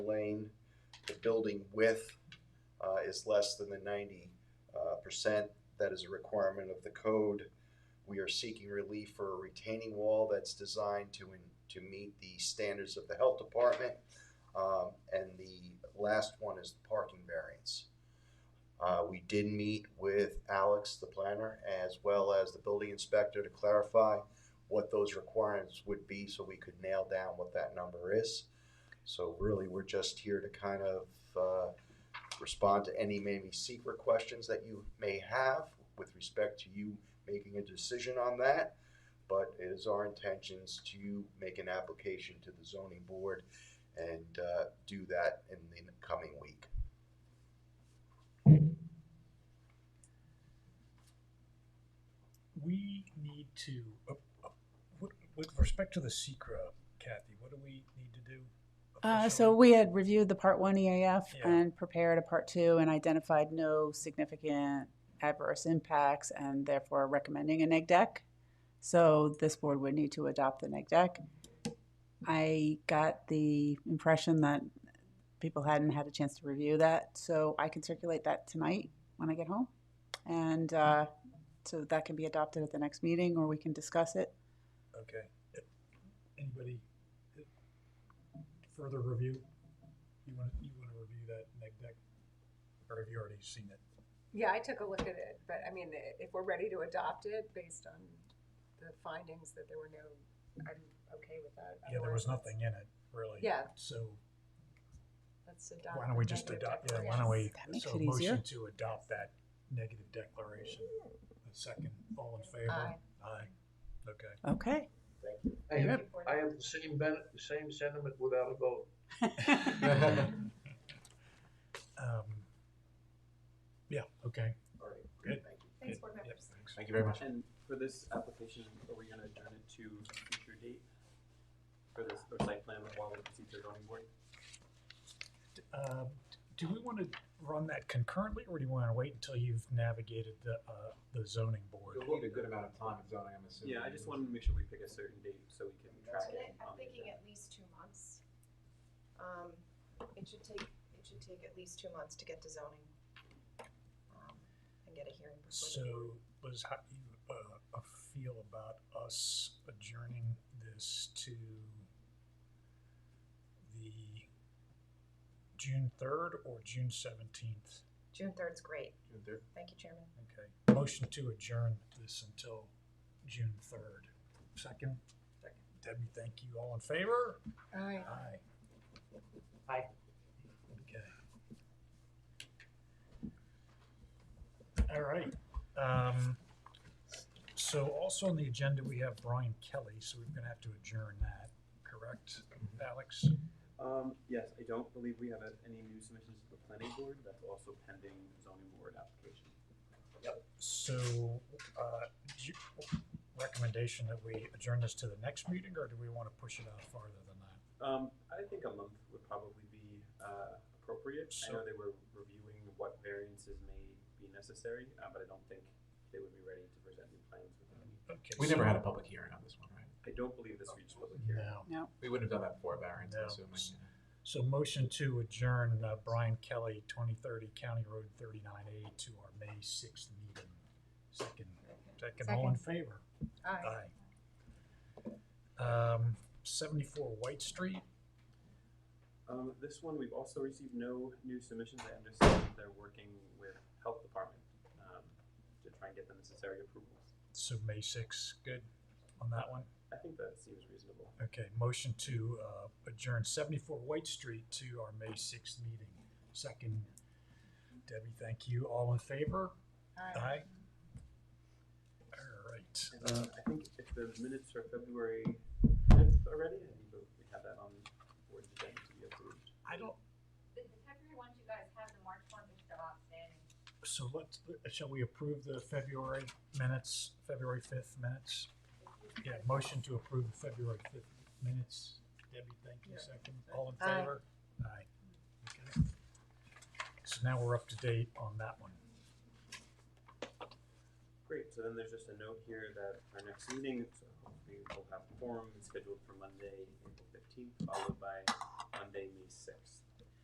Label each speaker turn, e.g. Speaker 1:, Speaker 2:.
Speaker 1: lane. The building width uh, is less than the ninety uh, percent. That is a requirement of the code. We are seeking relief for a retaining wall that's designed to, to meet the standards of the health department. Um, And the last one is the parking variance. Uh, We did meet with Alex, the planner, as well as the building inspector to clarify what those requirements would be so we could nail down what that number is. So really, we're just here to kind of uh, respond to any maybe secret questions that you may have with respect to you making a decision on that. But it is our intentions to make an application to the zoning board and uh, do that in the coming week.
Speaker 2: we need to, uh, uh, what- with respect to the secra, Kathy, what do we need to do?
Speaker 3: Uh, so
Speaker 2: officially?
Speaker 3: we had reviewed the part one EAF
Speaker 2: Yeah.
Speaker 3: and prepared a part two and identified no significant adverse impacts and therefore recommending a neg deck. So this board would need to adopt the neg deck. I got the impression that people hadn't had a chance to review that, so I can circulate that tonight when I get home. And, uh, so that can be adopted at the next meeting or we can discuss it.
Speaker 2: Okay. Uh, Anybody uh, further review? You want, you want to review that neg deck? Or have you already seen it?
Speaker 4: Yeah, I took a look at it, but I mean, i- if we're ready to adopt it based on the findings that there were no, I'm okay with that.
Speaker 2: Yeah, there was
Speaker 4: Otherwise, let's-
Speaker 2: nothing in it, really.
Speaker 4: Yeah.
Speaker 2: So
Speaker 4: Let's adopt.
Speaker 2: why don't we
Speaker 4: the
Speaker 2: just
Speaker 4: negative
Speaker 2: adopt, yeah, why don't we?
Speaker 4: declaration.
Speaker 3: That makes
Speaker 2: so
Speaker 3: it easier.
Speaker 2: Motion to adopt that negative declaration. A second, all in favor?
Speaker 4: Aye.
Speaker 2: Aye. Okay.
Speaker 3: Okay.
Speaker 5: I have,
Speaker 4: Yep.
Speaker 5: I have the same ben, the same sentiment without a vote.
Speaker 2: Um, Yeah, okay.
Speaker 1: All right.
Speaker 2: Good.
Speaker 1: Thank you.
Speaker 4: Thanks, board
Speaker 2: Yep,
Speaker 4: members.
Speaker 2: thanks.
Speaker 6: Thank you very much. And for this application, are we gonna adjourn it to a future date? For this, or site plan while we proceed to zoning board?
Speaker 2: Um, Do we want to run that concurrently, or do you want to wait until you've navigated the, uh, the zoning board?
Speaker 6: You'll
Speaker 7: need a good amount of time in zoning, I'm assuming.
Speaker 6: Yeah, I just wanted to make sure we pick a certain date so we can track it.
Speaker 8: I'm
Speaker 6: on the
Speaker 8: thinking
Speaker 6: agenda.
Speaker 8: at least two months. Um, it should take, it should take at least two months to get to zoning. um, And get a hearing. before the-
Speaker 2: So, Liz, how do you, uh, uh, feel about us adjourning this to the June third or June seventeenth?
Speaker 8: June third's great.
Speaker 7: June third.
Speaker 8: Thank you, Chairman.
Speaker 2: Okay, motion to adjourn this until June third. Second? Debbie, thank you. All in favor?
Speaker 4: Aye.
Speaker 2: Aye.
Speaker 5: Aye.
Speaker 2: Okay. All right, um, so also on the agenda, we have Brian Kelly, so we're gonna have to adjourn that, correct, Alex?
Speaker 6: Um, yes, I don't believe we have uh, any new submissions to the planning board, that's also pending zoning board application.
Speaker 2: So, uh, do you- recommendation that we adjourn this to the next meeting, or do we wanna push it out farther than that?
Speaker 6: Um, I think a month would probably be, uh, appropriate. I know
Speaker 2: So-
Speaker 6: they were reviewing what variances may be necessary, uh, but I don't think they would be ready to present new plans within a week.
Speaker 2: Okay,
Speaker 7: We
Speaker 2: so-
Speaker 7: never had a public hearing on this one, right?
Speaker 6: I don't believe this reached public hearing.
Speaker 2: No.
Speaker 7: We wouldn't have done that for a variance,
Speaker 2: No.
Speaker 7: I'm assuming.
Speaker 2: So motion to adjourn uh, Brian Kelly, twenty thirty County Road thirty-nine A to our May sixth meeting. Second, second, all in favor?
Speaker 4: Aye.
Speaker 2: Aye. Um, seventy-four White Street,
Speaker 6: Um, this one, we've also received no new submissions. I understand they're working with health department, um, to try and get the necessary approvals.
Speaker 2: so May sixth, good on that one?
Speaker 6: I think that seems reasonable.
Speaker 2: Okay, motion to uh, adjourn seventy-four White Street to our May sixth meeting. Second, Debbie, thank you. All in favor?
Speaker 4: Aye.
Speaker 2: Aye. All right.
Speaker 6: And, uh, I think if the minutes are February fifth already, I think that we have that on the board's agenda to be approved.
Speaker 2: I don't,
Speaker 9: The the February ones you guys have, the March ones are still outstanding.
Speaker 2: So let's, shall we approve the February minutes, February fifth minutes? Yeah, motion to approve the February fifth minutes. Debbie, thank you, second. All in
Speaker 4: Aye.
Speaker 2: favor? Aye. Okay. So now we're up to date on that one.
Speaker 6: Great, so then there's just a note here that our next meeting, so hopefully we'll have quorum, is scheduled for Monday, April fifteenth, followed by Monday, May sixth.